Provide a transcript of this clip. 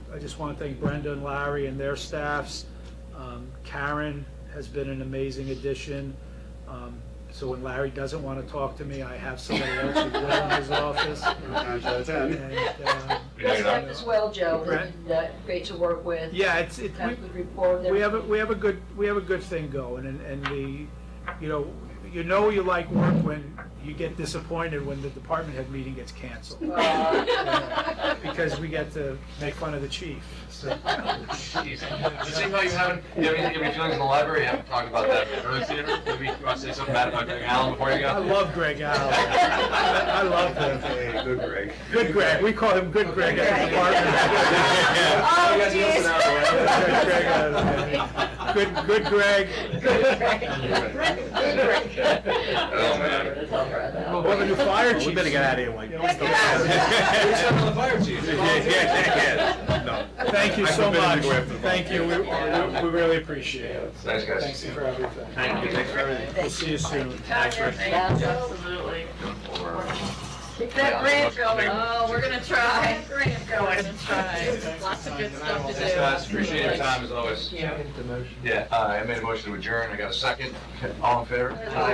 I just want to thank Brenda and Larry and their staffs. Um, Karen has been an amazing addition. Um, So when Larry doesn't want to talk to me, I have somebody else who will in his office. um, Nine out of ten. And, uh, Nice Yeah. life as well, Joe, Right. and uh, great to work with. Yeah, it's, it, Got we- good rapport with we have, a everybody. we have a good, we have a good thing going, and, and the, you know, you know you like work when you get disappointed when the department head meeting gets canceled. Oh, Uh, Because we get to make fun of the chief, so. Jeez. It seems like you haven't, you have any, you have any feelings in the library, you haven't talked about that in the road theater? Maybe you want to say something bad about Greg Allen before you go? I love Greg Allen. I love him. Hey, Good Greg. Good Greg, we call him Good Greg at the department. Oh, You guys geez. listen out, man. Good Greg out of there. Good, good Greg. Good Greg. Good Greg. Oh, man. That's all right, though. We'll have a new fire chief. We better get out of here, like. Yeah, let's get out of here. We sent on the fire chief. Yeah, yeah, yeah, yeah. No. Thank you I so forbid him to much. go after the Thank you, we, we we really appreciate it. Thanks, guys. Thanks for everything. Thank you. Thanks for everything. We'll see you soon. Yes, absolutely. Keep that grant going. Oh, we're gonna try. That grant We're going. gonna try. Lots of good stuff to do. Thanks, guys. Appreciate your time as always. Thank you. Yeah, uh, I made a motion to adjourn. I got a second. All in favor?